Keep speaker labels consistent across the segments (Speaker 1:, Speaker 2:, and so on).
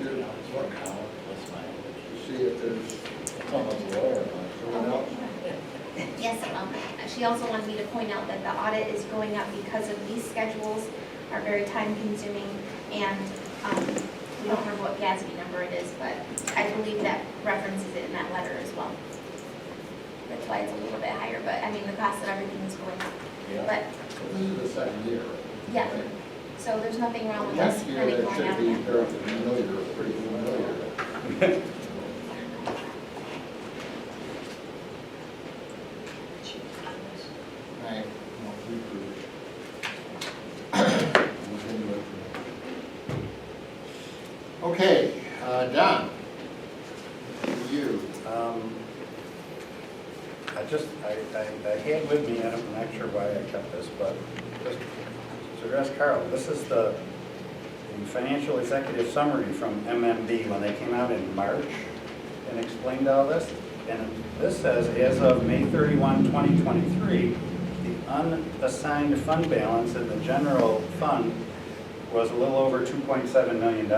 Speaker 1: work out, that's my,
Speaker 2: see if there's
Speaker 1: it's almost lawyer,
Speaker 2: someone else.
Speaker 3: Yes, um, she also wanted me to point out that the audit is going up because of these schedules are very time consuming and, um, we don't remember what GASB number it is, but I believe that references it in that letter as well. That's why it's a little bit higher, but I mean, the cost of everything is going up,
Speaker 1: yeah.
Speaker 3: but,
Speaker 2: This is the second year.
Speaker 3: yeah, so there's nothing wrong with us
Speaker 2: Next year,
Speaker 3: kind of
Speaker 2: that
Speaker 3: going
Speaker 2: should
Speaker 3: out
Speaker 2: be very
Speaker 3: there.
Speaker 2: familiar, pretty familiar.
Speaker 1: Right.
Speaker 2: Okay, uh, Don, you,
Speaker 4: Um, I just, I, I- I had with me, and I'm not sure why I kept this, but just to address Carl, this is the the financial executive summary from MMB when they came out in March and explained all this. And this says, as of May 31, 2023, the unassigned fund balance in the general fund was a little over $2.7 million.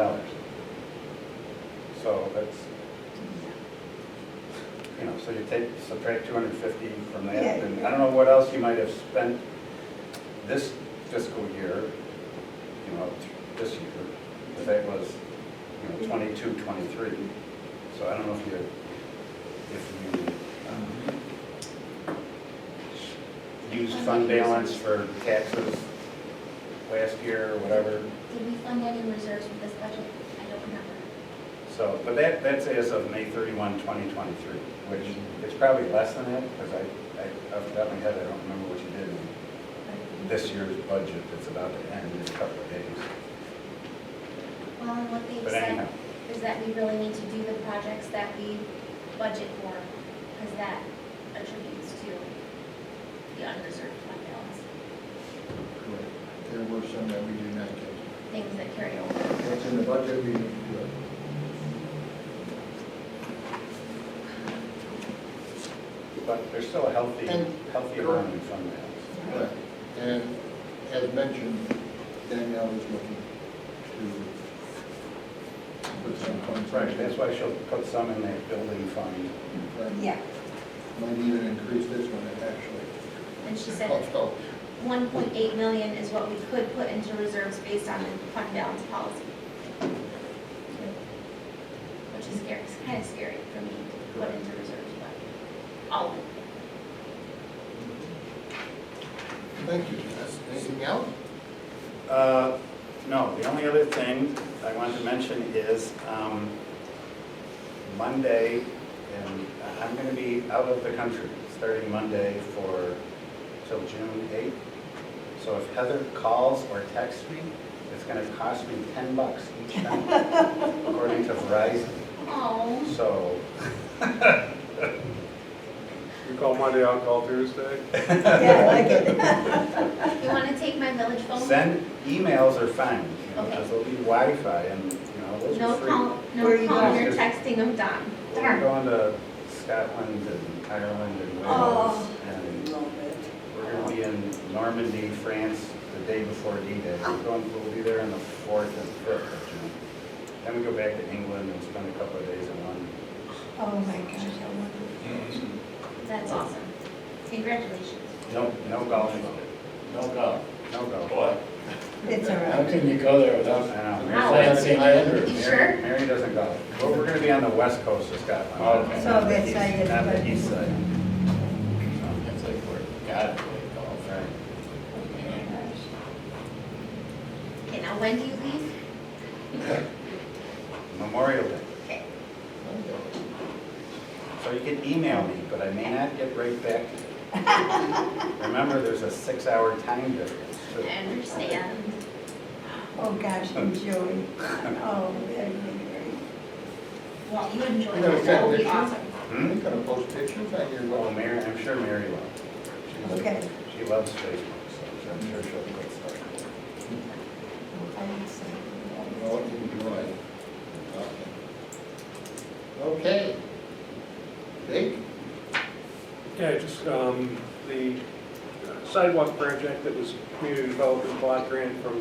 Speaker 4: So that's, you know, so you take, subtract two hundred fifty from that, and I don't know what else you might have spent this fiscal year, you know, this year, but that was, you know, twenty-two, twenty-three. So I don't know if you, if you, um, uh, used fund balance for taxes last year or whatever,
Speaker 3: Did we fund any reserves with this budget? I don't remember.
Speaker 4: so, but that, that's as of May 31, 2023, which it's probably less than that, because I, I, off the top of my head, I don't remember what you did in this year's budget that's about to end in a couple of days.
Speaker 3: Well, and what they
Speaker 4: But
Speaker 3: said
Speaker 4: anyhow.
Speaker 3: is that we really need to do the projects that we budget for, because that attributes to the unreserved fund balance,
Speaker 2: correct. There were some that we did not get.
Speaker 3: things that carry over.
Speaker 2: That's in the budget, we didn't do it.
Speaker 4: But there's still a healthy,
Speaker 2: And-
Speaker 4: healthy amount in fund balance.
Speaker 2: Right, and as mentioned, Danielle is looking to put some funds.
Speaker 4: Right, that's why she'll put some in that building fund.
Speaker 2: Right.
Speaker 5: Yeah,
Speaker 2: Might even increase this one, actually. Oh,
Speaker 3: And she said
Speaker 2: Let's go.
Speaker 3: one point eight million is what we could put into reserves based on the fund balance policy. Which is scary, it's kind of scary for me to put into reserves, but all of it.
Speaker 2: Thank you, Jess. Anything else?
Speaker 4: Uh, No, the only other thing I wanted to mention is um, Monday, and I'm going to be out of the country starting Monday for, till June 8th. So if Heather calls or texts me, it's going to cost me 10 bucks each time, according to Verizon.
Speaker 3: Oh.
Speaker 4: So,
Speaker 6: You call Monday, I'll call Tuesday.
Speaker 5: yeah, I like it.
Speaker 3: You want to take my village phone?
Speaker 4: send, emails are fine, you know,
Speaker 3: Okay.
Speaker 4: because there'll be Wi-Fi and, you know, those
Speaker 3: No
Speaker 4: are free.
Speaker 3: call,
Speaker 5: Where
Speaker 3: no
Speaker 5: you
Speaker 3: call,
Speaker 4: going?
Speaker 3: you're texting of Don.
Speaker 4: We're
Speaker 3: Darn.
Speaker 4: going to Scotland and Ireland and Wales,
Speaker 5: Oh.
Speaker 4: and we're gonna be in Normandy, France, the day before D-Day. We're going, we'll be there on the fourth and fifth of June. Then we go back to England and spend a couple of days in London.
Speaker 5: Oh, my gosh, I wonder.
Speaker 3: That's awesome. Congratulations.
Speaker 4: No, no golf,
Speaker 1: No go.
Speaker 4: no golf.
Speaker 1: Boy,
Speaker 5: It's all
Speaker 1: how
Speaker 5: right.
Speaker 1: can you go there
Speaker 4: I
Speaker 1: without
Speaker 4: know,
Speaker 3: Wow.
Speaker 4: Mary-
Speaker 1: glancing under?
Speaker 3: You
Speaker 4: Mary,
Speaker 3: sure?
Speaker 4: Mary doesn't golf. But we're gonna be on the west coast of Scotland.
Speaker 1: Okay.
Speaker 5: So that's how you-
Speaker 4: Not the east side.
Speaker 1: It's like we're, God, we
Speaker 4: So,
Speaker 1: golf.
Speaker 4: right.
Speaker 3: Okay, now when do you leave?
Speaker 4: Memorial Day.
Speaker 3: Okay.
Speaker 4: So you can email me, but I may not get right back to you. Remember, there's a six-hour time difference.
Speaker 3: I
Speaker 4: too.
Speaker 3: understand.
Speaker 5: Oh, gosh, enjoy. Oh, that'd be great.
Speaker 3: Well, you enjoy
Speaker 2: You gonna
Speaker 3: that. That will be
Speaker 2: send pictures?
Speaker 3: awesome.
Speaker 2: Are
Speaker 4: Hmm?
Speaker 2: you gonna post pictures on your
Speaker 4: Well,
Speaker 2: wall?
Speaker 4: Mary, I'm sure Mary will.
Speaker 5: Okay.
Speaker 4: She loves Facebook, so I'm sure she'll put stuff.
Speaker 2: Oh, enjoy. Okay. Dave?
Speaker 6: Yeah, just, um, the sidewalk project that was community development block grant from